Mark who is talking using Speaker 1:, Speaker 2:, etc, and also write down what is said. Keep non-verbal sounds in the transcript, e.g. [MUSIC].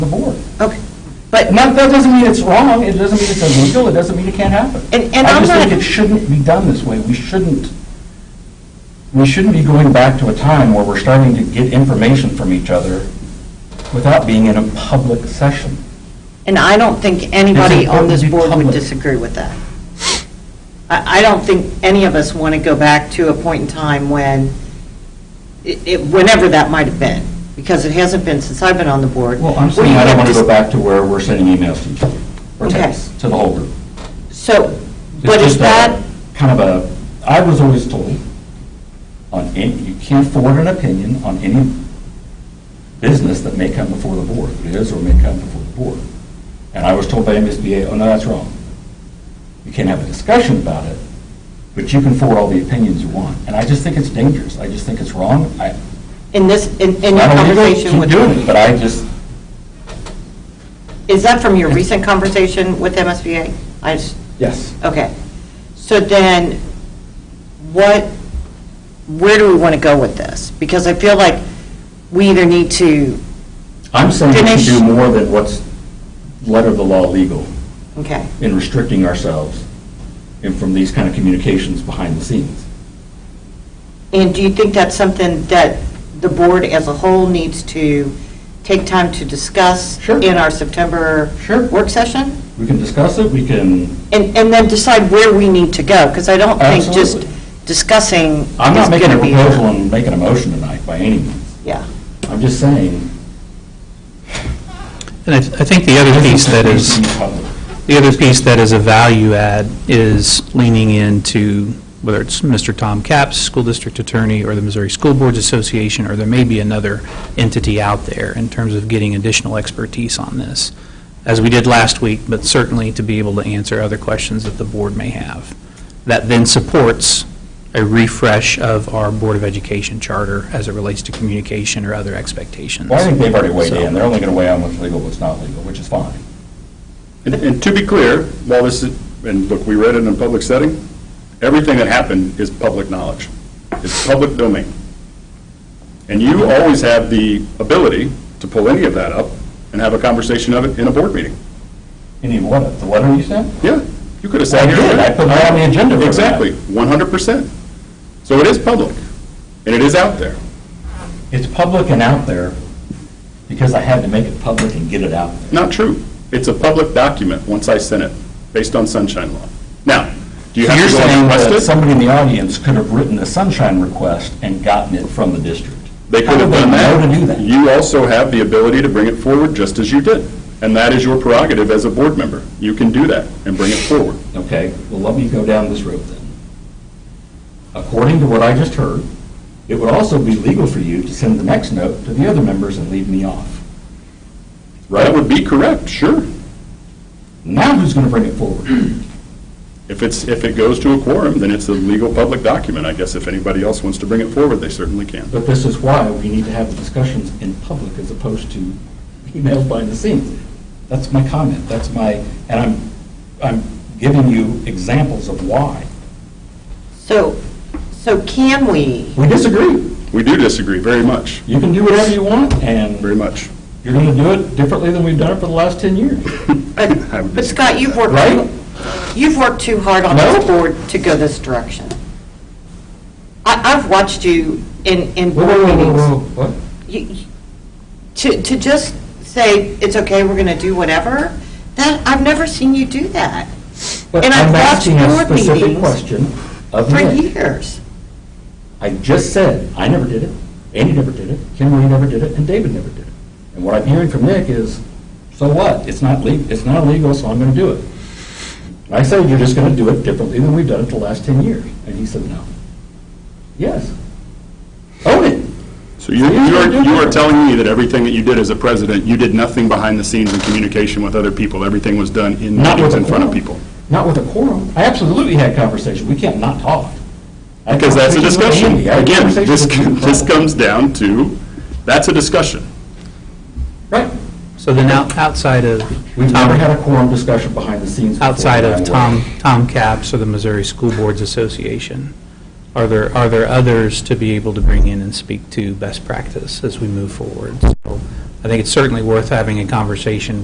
Speaker 1: the board.
Speaker 2: Okay, but,
Speaker 1: Not, that doesn't mean it's wrong, it doesn't mean it's illegal, it doesn't mean it can't happen.
Speaker 2: And- and I'm
Speaker 1: I just
Speaker 2: not-
Speaker 1: think it shouldn't be done this way. We shouldn't, we shouldn't be going back to a time where we're starting to get information from each other without being in a public session.
Speaker 2: and I don't think anybody on
Speaker 1: important
Speaker 2: this
Speaker 1: to be
Speaker 2: board would
Speaker 1: public.
Speaker 2: disagree with that. I, I don't think any of us want to go back to a point in time when, it- it, whenever that might have been, because it hasn't been since I've been on the board.
Speaker 1: Well, I'm
Speaker 2: where
Speaker 1: saying
Speaker 2: you
Speaker 1: I don't
Speaker 2: have
Speaker 1: want to
Speaker 2: dis-
Speaker 1: go back to where we're sending emails to each other, or
Speaker 2: Okay.
Speaker 1: texts, to the whole group.
Speaker 2: So,
Speaker 1: It's
Speaker 2: but is
Speaker 1: just uh, a-
Speaker 2: that,
Speaker 1: Kind of a, I was always told, on any, you can't forward an opinion on any business that may come before the board, that is or may come before the board. And I was told by MSBA, oh, no, that's wrong. You can't have a discussion about it, but you can forward all the opinions you want. And I just think it's dangerous, I just think it's wrong, I,
Speaker 2: in this, in in your
Speaker 1: I don't really
Speaker 2: conversation
Speaker 1: keep
Speaker 2: with...
Speaker 1: doing it, but I just,
Speaker 2: Is that from your recent conversation with MSBA? I just,
Speaker 1: yes.
Speaker 2: okay. So then, what, where do we want to go with this? Because I feel like we either need to,
Speaker 1: I'm saying we
Speaker 2: Dinesh-
Speaker 1: should do more than what's letter of the law legal
Speaker 2: okay,
Speaker 1: in restricting ourselves and from these kind of communications behind the scenes.
Speaker 2: and do you think that's something that the board as a whole needs to take time to discuss
Speaker 1: Sure.
Speaker 2: in our September
Speaker 1: Sure.
Speaker 2: work session?
Speaker 1: We can discuss it, we can,
Speaker 2: And, and then decide where we need to go, because I don't think just
Speaker 1: Absolutely.
Speaker 2: discussing is
Speaker 1: I'm not
Speaker 2: going
Speaker 1: making a
Speaker 2: to be.
Speaker 1: proposal and making a motion tonight by any means.
Speaker 2: Yeah.
Speaker 1: I'm just saying.
Speaker 3: And I th- I think the other piece that is, the other piece that is a value add is leaning into, whether it's Mr. Tom Capps, school district attorney, or the Missouri School Boards Association, or there may be another entity out there in terms of getting additional expertise on this, as we did last week, but certainly to be able to answer other questions that the board may have. That then supports a refresh of our Board of Education charter as it relates to communication or other expectations.
Speaker 1: Well, I think they've already weighed
Speaker 3: So-
Speaker 1: in, they're only going to weigh on what's legal, what's not legal, which is fine.
Speaker 4: And- And to be clear, while this is, and look, we read it in a public setting, everything that happened is public knowledge. It's public domain. And you always have the ability to pull any of that up and have a conversation of it in a board meeting.
Speaker 1: Any what, the letter you sent?
Speaker 4: Yeah, you could have
Speaker 1: I
Speaker 4: sat here.
Speaker 1: did, I put that on the agenda. for
Speaker 4: Exactly,
Speaker 1: that.
Speaker 4: 100%. So it is public, and it is out there.
Speaker 1: It's public and out there because I had to make it public and get it out there.
Speaker 4: Not true. It's a public document, once I sent it, based on sunshine law. Now, do you
Speaker 1: So
Speaker 4: have
Speaker 1: you're
Speaker 4: to go and
Speaker 1: saying
Speaker 4: request it?
Speaker 1: that somebody in the audience could have written a sunshine request and gotten it from the district?
Speaker 4: They could have done that.
Speaker 1: How did they know to do that?
Speaker 4: You also have the ability to bring it forward, just as you did. And that is your prerogative as a board member. You can do that and bring it forward.
Speaker 1: Okay, well, let me go down this road then. According to what I just heard, it would also be legal for you to send the next note to the other members and leave me off.
Speaker 4: That would be correct, sure.
Speaker 1: Now who's going to bring it forward?
Speaker 4: If it's, if it goes to a quorum, then it's a legal public document. I guess if anybody else wants to bring it forward, they certainly can.
Speaker 1: But this is why we need to have the discussions in public as opposed to emails behind the scenes. That's my comment, that's my, and I'm, I'm giving you examples of why.
Speaker 2: So, so can we,
Speaker 1: We disagree.
Speaker 4: We do disagree very much,
Speaker 1: You can do whatever you want, and
Speaker 4: very much.
Speaker 1: you're going to do it differently than we've done it for the last 10 years.
Speaker 2: but
Speaker 4: [LAUGHS] I would
Speaker 2: but Scott, you've worked,
Speaker 1: Right?
Speaker 2: you've worked too hard on this
Speaker 1: No.
Speaker 2: board to go this direction. I, I've watched you in, in board meetings.
Speaker 1: What?
Speaker 2: You- you- To, to just say, it's okay, we're going to do whatever, that, I've never seen you do that.
Speaker 1: But
Speaker 2: And I've
Speaker 1: I'm
Speaker 2: watched
Speaker 1: asking a
Speaker 2: board
Speaker 1: specific
Speaker 2: meetings
Speaker 1: question of
Speaker 2: For
Speaker 1: Nick.
Speaker 2: years.
Speaker 1: I just said, I never did it, Andy never did it, Kim Lee never did it, and David never did it. And what I'm hearing from Nick is, so what? It's not legal, it's not illegal, so I'm going to do it. And I said, you're just going to do it differently than we've done it the last 10 years. And he said, no. Yes. Own it.
Speaker 4: So you, you are, you are telling me that everything that you did as a president, you did nothing behind the scenes in communication with other people. Everything was done in
Speaker 1: Not with
Speaker 4: meetings
Speaker 1: a
Speaker 4: in front of
Speaker 1: quorum.
Speaker 4: people.
Speaker 1: Not with a quorum. I absolutely had conversation. We can't not talk. I had
Speaker 4: Because that's a
Speaker 1: conversation
Speaker 4: discussion.
Speaker 1: with Andy. I had
Speaker 4: Again,
Speaker 1: conversation
Speaker 4: [LAUGHS] this,
Speaker 1: with Kim Crowell.
Speaker 4: this comes down to, that's a discussion.
Speaker 1: Right.
Speaker 3: So then out- outside of
Speaker 1: We've
Speaker 3: Tom-
Speaker 1: never had a quorum discussion behind the scenes. before
Speaker 3: outside
Speaker 1: that
Speaker 3: of
Speaker 1: I'm
Speaker 3: Tom,
Speaker 1: aware.
Speaker 3: Tom Capps or the Missouri School Boards Association, are there, are there others to be able to bring in and speak to best practice as we move forward? So I think it's certainly worth having a conversation